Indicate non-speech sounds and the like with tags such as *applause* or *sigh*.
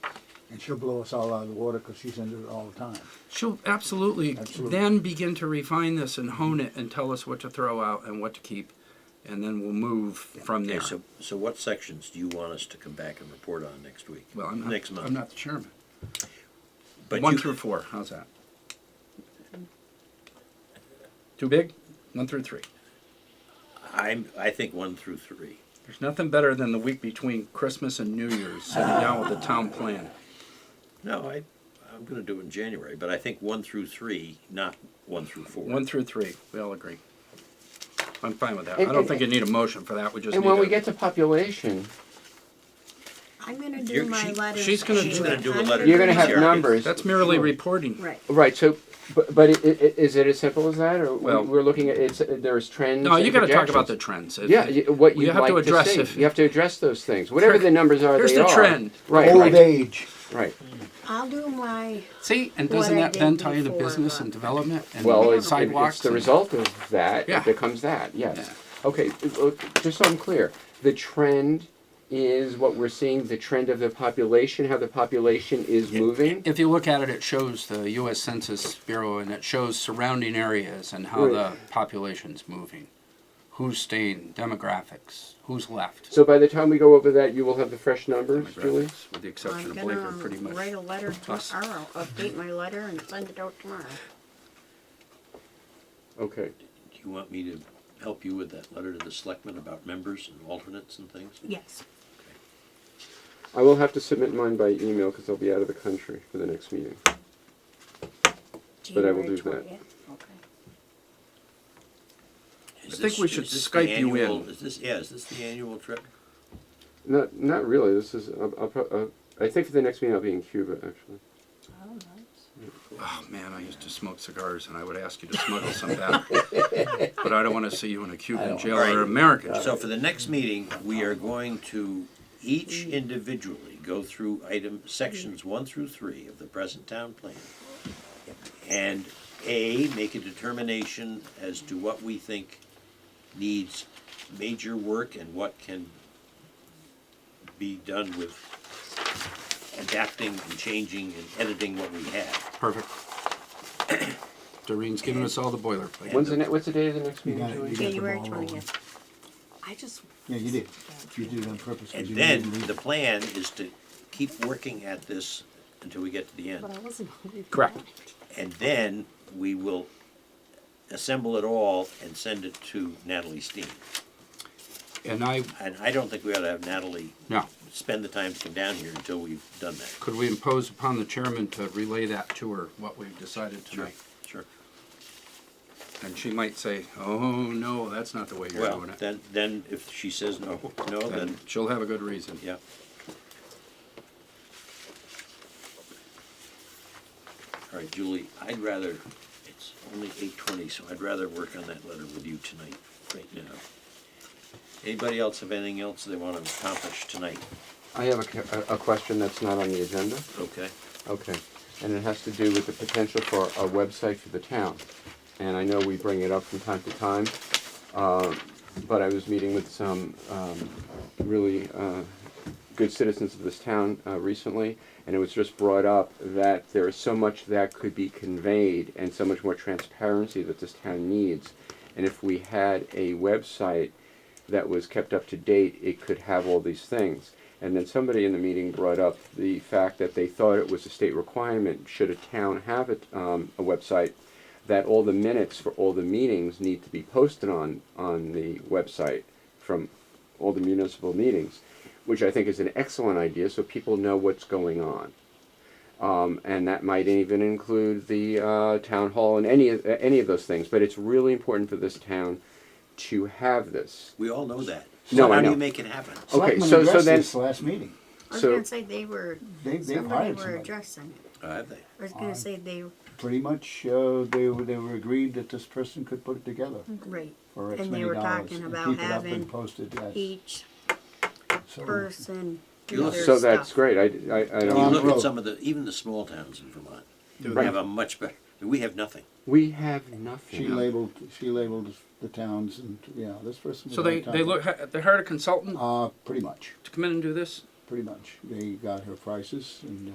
and she'll blow us all out of the water because she sends it all the time. She'll absolutely, Absolutely. then begin to refine this and hone it and tell us what to throw out and what to keep, and then we'll move from Okay, there. so, so what sections do you want us to come back and report on next week? well, I'm not, Next month? I'm not the chairman. But one you- through four. How's that? Too big? One through three. I'm, I think one through three. There's nothing better than the week between Christmas and New Year's sitting down with the town plan. No, I, I'm gonna do it in January, but I think one through three, not one through four. One through three. We all agree. I'm fine with that. And- I don't and- think you need a motion for that. We just And need when we to- get to population, I'm gonna do You're- my she- letter. she's gonna do it. do a I'm letter. you're gonna have Sure. numbers. That's merely reporting. Right. Right, so, but, but i- i- is it as simple as that, or Well- we- we're looking at, it's, there's trends No, and you got to talk about the projections? trends. It- Yeah, it- you- what you you'd have to like to address see, if- you have to address those things, whatever the numbers are, they are. Here's the trend. Right, Old right, age. right, I'll do my, See, and What doesn't I that then did tie to before, business but- and development and well, it's, it- sidewalks? it's the and- result of that, Yeah. it becomes that, yes. Yeah. Okay, uh, uh, just so I'm clear, the trend is what we're seeing, the trend of the population, how the population is moving? If you look at it, it shows the U.S. Census Bureau and it shows surrounding areas and how the population's moving, who's staying, demographics, who's left. So by the time we go over that, you will have the fresh numbers, Julie? Demographics, With the exception I'm of Blaker, pretty gonna write a much. letter us. tomorrow, update my letter and send it out tomorrow. Okay, Do you want me to help you with that letter to the selectmen about members and alternates and things? Yes. I will have to submit mine by email, because I'll be out of the country for the next meeting. But I will January do that. 20th. Okay. Is I think this- we should is this the Skype you in. annual- Is this, yeah, is this the annual trip? Not, not really. This is. I'll, I'll, pro- uh, I think for the next meeting I'll be in Cuba actually. Oh, nice. Oh, man, I used to smoke cigars and I would ask you to smuggle some *laughs* back. But I don't want to see you in a Cuban jail All right. or American jail. So for the next meeting, we are going to each individually go through item, sections one through three of the present town plan. And A, make a determination as to what we think needs major work and what can be done with adapting and changing and editing what we have. Perfect. *coughs* Doreen's giving us all the boilerplate. When's the ne- What's the date of the next You meeting? got it, Julie? you got it. January ball twentieth. I just, Yeah, you did. You did it on purpose. 'cause And you then knew the plan is to keep working at this until we get to the end. but I wasn't. hungry for Correct. that. And then we will assemble it all and send it to Natalie Steen. And I, And I don't think we ought to have Natalie no, spend the time to come down here until we've done that. could we impose upon the chairman to relay that to her, what we've decided tonight? Sure. And she might say, "Oh no, that's not the way you're Well, doing it." then, then if she says no, no, then then, she'll have a good reason. yeah. All right, Julie, I'd rather, it's only eight twenty, so I'd rather work on that letter with you tonight, right now. Anybody else have anything else they want to accomplish tonight? I have a ca- a, a question that's not on the agenda. Okay. Okay, and it has to do with the potential for a website for the town. And I know we bring it up from time to time, um, but I was meeting with some um, really uh, good citizens of this town uh, recently, and it was just brought up that there is so much that could be conveyed and so much more transparency that this town needs. And if we had a website that was kept up to date, it could have all these things. And then somebody in the meeting brought up the fact that they thought it was a state requirement, should a town have a, um, a website, that all the minutes for all the meetings need to be posted on, on the website from all the municipal meetings, which I think is an excellent idea, so people know what's going on. Um, and that might even include the uh, town hall and any of, any of those things. But it's really important for this town to have this. We all know that. So No, I how do know. you make it happen? the- okay, Selectmen so- so addressed then- this Last meeting. I was So- gonna say they were, They, they somebody hired were somebody. addressing it. Oh, Have they? I was gonna say they, Pretty much, uh, they were, they were agreed that this person could put it together right, for X Mm. And they many were dollars. talking and about keep it up having and posted, yes. each So- person You do look- their So that's stuff. great. I, I, I You don't. Um, look Road. at some of the, even the small towns in Vermont, Right. have a much better, we have nothing. We have nothing. She labeled, she labeled the towns and, yeah, this person. was So on they, top they of it. look they hired a consultant Uh, pretty much, to come in and do this. pretty much. They got her prices and